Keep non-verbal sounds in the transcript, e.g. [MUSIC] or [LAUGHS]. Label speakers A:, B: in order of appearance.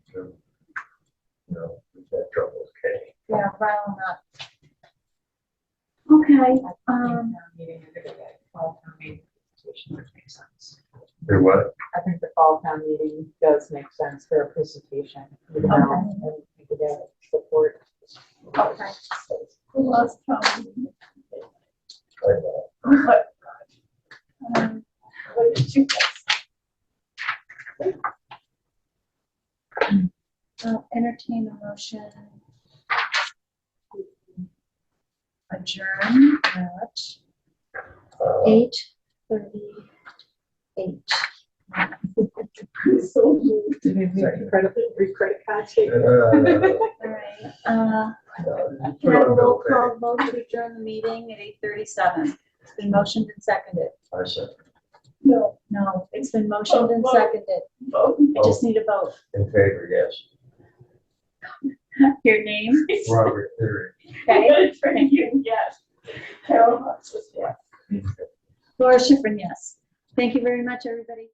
A: Um,
B: Well, not.
A: Okay,
B: I think
A: Um.
B: town meeting, I think the fall town meeting presentation would make sense.
C: They what?
B: I think the fall town meeting does make sense for a presentation. you know,
A: Okay.
B: And we could have support.
A: okay. Who else from,
B: But
A: um,
B: what did you guys
A: uh, entertain a motion? Adjourn
B: Uh,
A: at
C: Uh,
A: eight thirty-eight.
B: So moved. Did we do credit, free credit card
C: Uh,
B: check?
A: All right, uh,
B: [LAUGHS]
A: can I have a roll
C: I
A: call vote to adjourn the meeting at eight thirty-seven? It's been motioned and seconded.
C: said,
A: No. No, it's been motioned and seconded. I just need a vote.
C: in favor, yes.
A: Your name?
C: Robert Theory.
A: Okay. Thank you.
B: Yes. Carol Hutchins, yes.
A: Laura Schifrin, yes. Thank you very much, everybody.